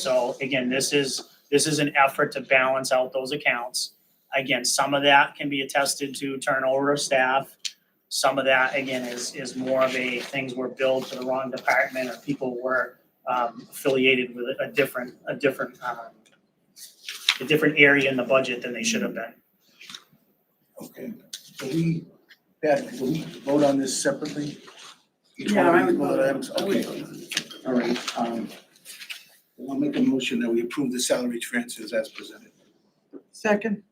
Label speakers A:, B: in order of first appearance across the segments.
A: So again, this is, this is an effort to balance out those accounts. Again, some of that can be attested to turnover of staff. Some of that, again, is, is more of a, things were billed to the wrong department or people were um, affiliated with a different, a different, uh, a different area in the budget than they should have been.
B: Okay, do we, Pat, do we vote on this separately? Each
C: Yeah,
B: one
C: I
B: of these
C: would
B: bullet
C: vote-
B: items,
C: I would
B: okay. All right, um, I'll make a motion that we approve the salary transfers as presented.
C: Second.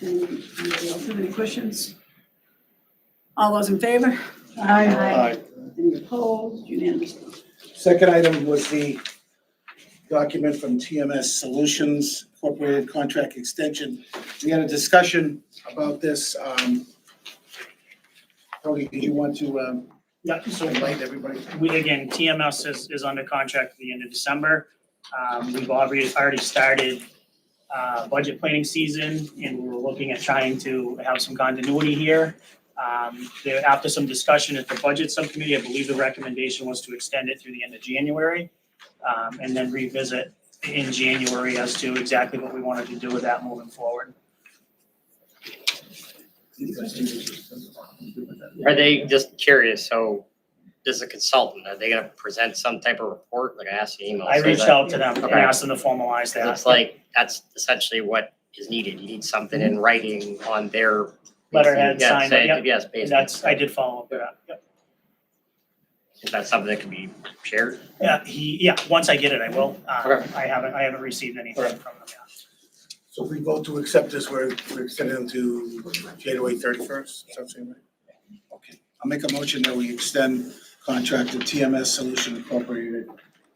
C: Anybody else have any questions? All those in favor? Any opposed? Unanimous.
B: Second item was the document from TMS Solutions Incorporated Contract Extension. We had a discussion about this, um, Tony, did you want to, um,
A: Yeah, so
B: enlighten everybody?
A: we, again, TMS is, is under contract at the end of December. Um, we've already, already started, uh, budget planning season, and we're looking at trying to have some continuity here. Um, there, after some discussion at the budget subcommittee, I believe the recommendation was to extend it through the end of January, um, and then revisit in January as to exactly what we wanted to do with that moving forward.
D: Are they just curious? So, this is a consultant. Are they going to present some type of report? Like I asked the email.
A: I
D: so
A: reached
D: that-
A: out to them and
D: Okay.
A: asked them to formalize that.
D: It's like that's essentially what is needed. You need something in writing on their
A: Mm-hmm. Letterhead,
D: Yeah,
A: signed,
D: say-
A: yep.
D: Yes, basically.
A: That's, I did follow up with that, yep.
D: Is that something that can be shared?
A: Yeah, Uh, he, yeah, once I get it, I will. Uh,
D: Okay.
A: I haven't, I haven't received anything
D: Okay.
A: from them yet.
B: So if we vote to accept this, we're, we're extending it to January thirty-first, does that seem right? Okay, I'll make a motion that we extend contract to TMS Solution Incorporated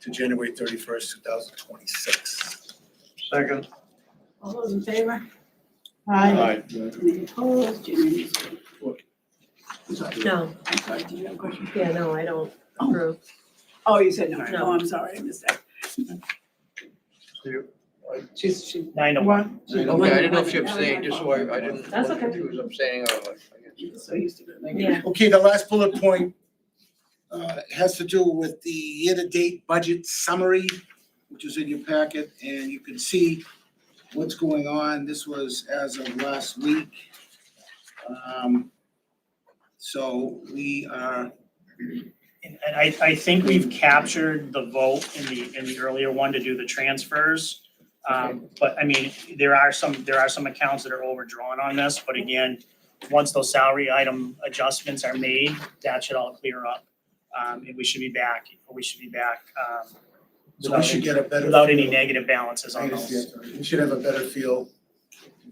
B: to January thirty-first, two thousand twenty-six.
A: Second.
C: All those in favor?
B: Did
C: Any opposed? Unanimous.
E: No,
C: I'm sorry, did you have a question?
E: yeah, no, I don't approve.
C: Oh, you said no.
E: No.
C: Oh, I'm sorry, I missed that. She's, she.
A: Nine to one.
C: One.
F: Okay, I didn't know if you abstained, just so I, I didn't.
E: That's okay.
F: He was abstaining, I was like, I guess.
C: So used to it.
E: Yeah.
B: Okay, the last bullet point uh, has to do with the year-to-date budget summary, which is in your packet, and you can see what's going on. This was as of last week. Um, So we are,
A: And and I, I think we've captured the vote in the, in the earlier one to do the transfers. Um, but I mean, there are some, there are some accounts that are overdrawn on this, but again, once those salary item adjustments are made, that should all clear up. Um, and we should be back, we should be back, um,
B: so we should get a better.
A: without any
B: feel.
A: negative balances
B: I
A: on those.
B: understand. We should have a better feel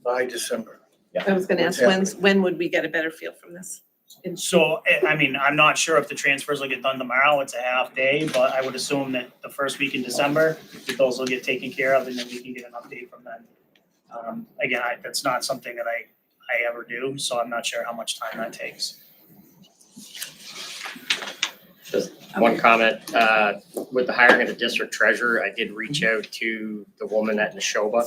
B: by December.
E: I was gonna ask, when's, when would we get a better feel from this?
A: So, eh, I, I mean, I'm not sure if the transfers will get done tomorrow, it's a half day, but I would assume that the first week in December, that those will get taken care of and then we can get an update from them. Um, again, I, that's not something that I, I ever do, so I'm not sure how much time that takes.
D: One comment, uh, with the hiring of the district treasurer, I did reach
A: Mm-hmm.
D: out to the woman at Neshoba.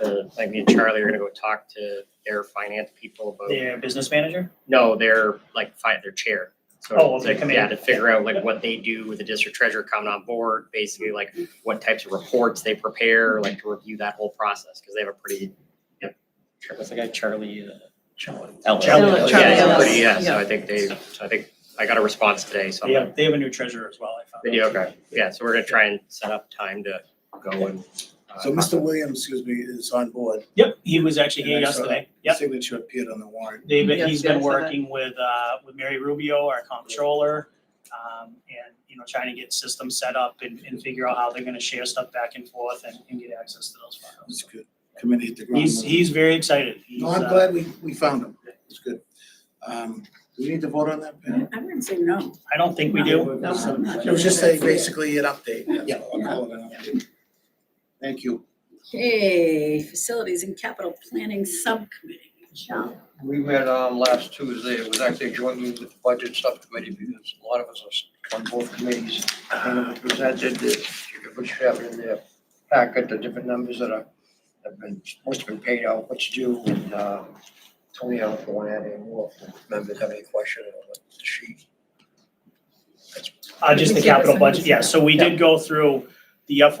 D: Uh, Like me and Charlie are gonna go talk to their finance people about
A: Their business manager?
D: No, they're like fi- their chair. So
A: Oh, okay,
D: to-
A: committee.
D: Yeah, to figure out like what they do with the district treasurer coming on board, basically like what types of reports they prepare, like to review that whole process, because they have a pretty, you know, Char- what's the guy, Charlie? uh,
A: Charlie
D: Ellis. Yeah,
A: Ellis.
D: it's a
E: Charlie
D: pretty- Yeah,
E: Ellis,
D: so I think they, so I think I got a response today, so.
A: They have, they have a new treasurer as well, I found.
D: Video, okay, yeah, so we're gonna try and set up time to go and. uh,
A: Uh-huh.
B: So Mr. Williams, excuse me, is on board.
A: Yep, he was actually here
B: And I saw
A: yesterday,
B: his
A: yep.
B: Signature appeared on the warrant.
A: They've, been-
E: Yes,
A: he's
E: yeah, I
A: been
E: saw that.
A: working with, uh, with Mary Rubio, our comptroller, um, and, you know, trying to get systems set up and, and figure out how they're gonna share stuff back and forth and, and get access to those files.
B: It's good. Committee at the ground.
A: He's, he's very excited. He's,
B: No, I'm
A: uh,
B: glad we, we found him. It's good. Um, do we need to vote on that, Pam?
C: I'm gonna say no.
A: I don't think we do.
C: No, I'm not.
B: It was just a, basically an update. that's
A: Yeah.
B: all. I'll call it an update. Thank you.
C: Okay, facilities and capital planning subcommittee. Michelle.
F: We met, um, last Tuesday, it was actually a joint meeting with the budget subcommittee, because a lot of us are on both committees. And it was presented, that you could put your in their packet, the different numbers that are, have been, must have been paid out, what's due, and, um, Tony, I don't want to add any more, if members have any question on the sheet.
A: Uh, just the
E: We
A: Uh,
E: can't
A: capital
E: assign
A: budget,
E: this.
A: yeah, so we did go through the FY